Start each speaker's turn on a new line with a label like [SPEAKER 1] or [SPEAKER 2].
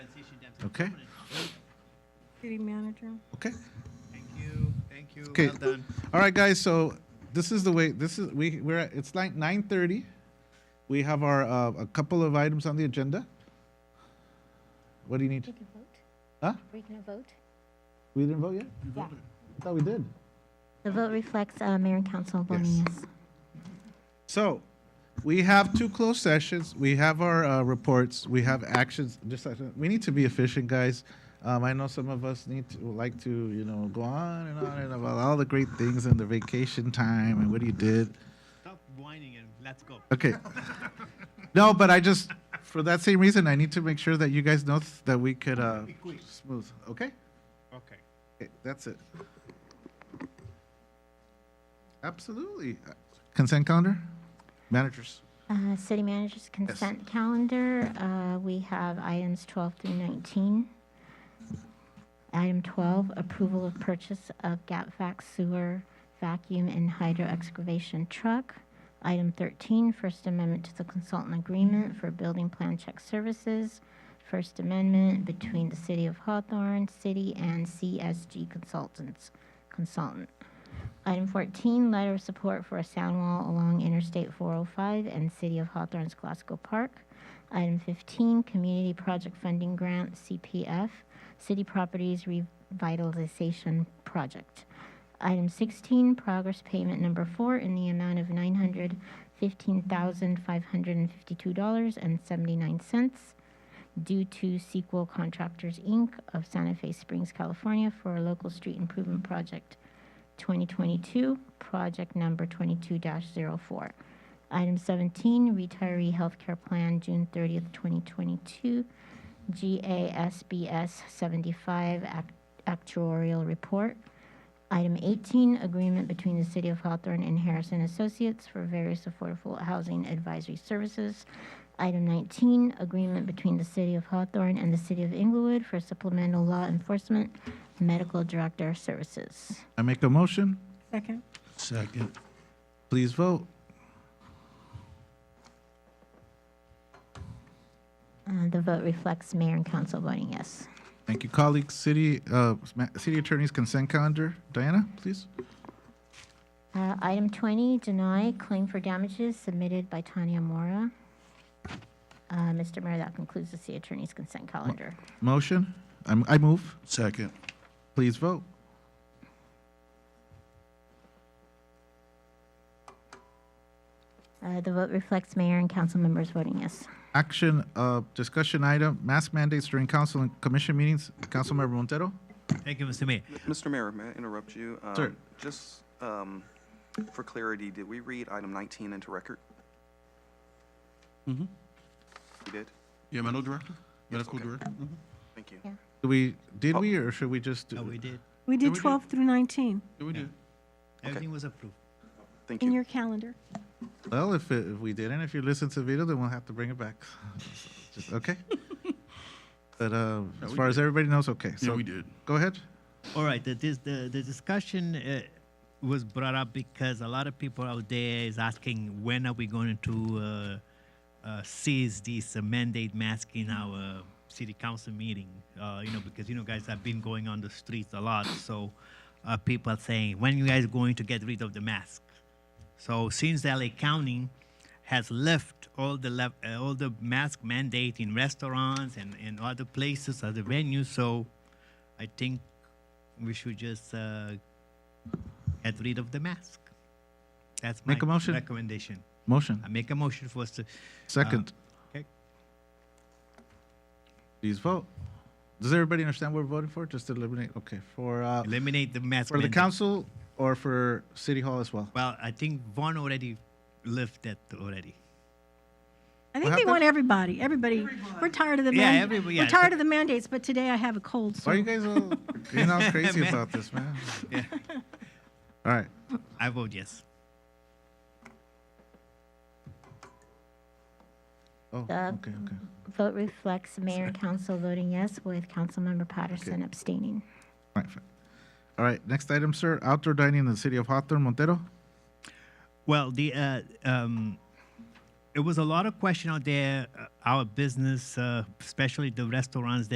[SPEAKER 1] Okay,
[SPEAKER 2] City manager.
[SPEAKER 1] okay.
[SPEAKER 3] Thank you, thank you,
[SPEAKER 1] Okay.
[SPEAKER 3] well done.
[SPEAKER 1] All right, guys. So this is the way. This is we we're at, it's like nine thirty. We have our uh, a couple of items on the agenda. What do you need?
[SPEAKER 4] We can vote?
[SPEAKER 1] Huh?
[SPEAKER 4] Are we going to vote?
[SPEAKER 1] We didn't vote yet.
[SPEAKER 4] Yeah.
[SPEAKER 1] I thought we did.
[SPEAKER 4] The vote reflects uh, mayor and council voting yes.
[SPEAKER 1] So we have two closed sessions. We have our uh, reports. We have actions. Just like, we need to be efficient, guys. Um, I know some of us need to would like to you know go on and on and about all the great things and the vacation time and what you did.
[SPEAKER 3] Stop whining and let's go.
[SPEAKER 1] Okay. No, but I just, for that same reason, I need to make sure that you guys know th- that we could, uh,
[SPEAKER 3] Be quick.
[SPEAKER 1] smooth, okay?
[SPEAKER 3] Okay.
[SPEAKER 1] Okay, That's it. Absolutely. Consent calendar? Managers?
[SPEAKER 4] Uh, City manager's consent calendar, uh, we have items 12 through 19. Item 12, approval of purchase of GapVac sewer vacuum and hydro excavation truck. Item 13, First Amendment to the consultant agreement for building plan check services. First Amendment between the City of Hawthorne, City and CSG Consultants, consultant. Item 14, letter of support for a sound wall along Interstate 405 and City of Hawthorne's Glasgow Park. Item 15, community project funding grant, CPF, City Properties Revitalization Project. Item 16, progress payment number four in the amount of $915,552.79 due to Sequel Contractors, Inc. of Santa Fe Springs, California for a local street improvement project 2022, project number 22-04. Item 17, retiree healthcare plan, June 30th, 2022, GASBS 75 act- actuarial report. Item 18, agreement between the City of Hawthorne and Harrison Associates for various affordable housing advisory services. Item 19, agreement between the City of Hawthorne and the City of Inglewood for supplemental law enforcement, medical director services.
[SPEAKER 1] I make a motion.
[SPEAKER 2] Second.
[SPEAKER 1] Second. Please vote.
[SPEAKER 4] Uh, The vote reflects mayor and council voting yes.
[SPEAKER 1] Thank you, colleagues. City, uh, ma- city attorney's consent calendar. Diana, please.
[SPEAKER 4] Uh, Item 20, deny claim for damages submitted by Tanya Mora. Uh, Mr. Mayor, that concludes the city attorney's consent calendar.
[SPEAKER 1] Motion. I'm, I move. Second. Please vote.
[SPEAKER 4] Uh, The vote reflects mayor and council members voting yes.
[SPEAKER 1] Action, uh, discussion item, mask mandates during council and commission meetings. Councilmember Montero?
[SPEAKER 3] Thank you, Mr. Mayor.
[SPEAKER 5] Mr. Mayor, may I interrupt you? Um,
[SPEAKER 1] Sir.
[SPEAKER 5] Just um, for clarity, did we read item 19 into record? Mm-hmm. We did?
[SPEAKER 6] Yeah, medical director? Medical
[SPEAKER 5] okay.
[SPEAKER 6] director? Mm-hmm.
[SPEAKER 5] Thank you.
[SPEAKER 1] Do we, did we, or should we just? do-
[SPEAKER 3] No, Oh, we did.
[SPEAKER 2] We did
[SPEAKER 6] we do-
[SPEAKER 2] 12 through 19
[SPEAKER 6] Yeah, we did.
[SPEAKER 3] Everything was approved.
[SPEAKER 5] Thank
[SPEAKER 2] in
[SPEAKER 5] you.
[SPEAKER 2] your calendar.
[SPEAKER 1] Well, if, it- if we didn't, if you listen to the video, then we'll have to bring it back. Just- Okay? But, uh, as
[SPEAKER 6] we
[SPEAKER 1] far as everybody knows, okay.
[SPEAKER 6] Yeah,
[SPEAKER 1] So
[SPEAKER 6] we did.
[SPEAKER 1] Go ahead.
[SPEAKER 3] All right, the, this, the, the discussion uh, was brought up because a lot of people out there is asking when are we going to uh, uh, cease this uh, mandate mask in our city council meeting? Uh, you know, because you know, guys, I've been going on the streets a lot, so uh, people are saying, when you guys going to get rid of the mask? So since LA County has left all the lev- uh, all the mask mandate in restaurants and, and other places, other venues, so I think we should just uh, get rid of the mask. That's my
[SPEAKER 1] Make a motion.
[SPEAKER 3] recommendation.
[SPEAKER 1] Motion.
[SPEAKER 3] I uh, make a motion for us to.
[SPEAKER 1] Second.
[SPEAKER 3] Okay.
[SPEAKER 1] Please vote. Does everybody understand what we're voting for? Just to eliminate, okay, for, uh,
[SPEAKER 3] Eliminate the mask.
[SPEAKER 1] for the
[SPEAKER 3] mandate.
[SPEAKER 1] council or for city hall as well?
[SPEAKER 3] Well, I think Vaughn already lived that already.
[SPEAKER 2] I think they
[SPEAKER 1] happened?
[SPEAKER 2] want everybody, everybody. We're tired of the
[SPEAKER 3] Yeah,
[SPEAKER 2] mand-
[SPEAKER 3] everybody,
[SPEAKER 2] We're
[SPEAKER 3] yeah.
[SPEAKER 2] tired of the mandates, but today I have a cold, so
[SPEAKER 1] Why are you guys all being all crazy
[SPEAKER 3] Man.
[SPEAKER 1] about this, man? All right.
[SPEAKER 3] I vote yes.
[SPEAKER 1] Oh,
[SPEAKER 4] Uh,
[SPEAKER 1] okay, okay.
[SPEAKER 4] Vote reflects mayor and council voting yes, with councilmember Patterson abstaining.
[SPEAKER 1] All right, fine. All right, next item, sir. Outdoor dining in the city of Hawthorne, Montero.
[SPEAKER 3] Well, the uh, um, it was a lot of question out there. Uh, our business, uh, especially the restaurants.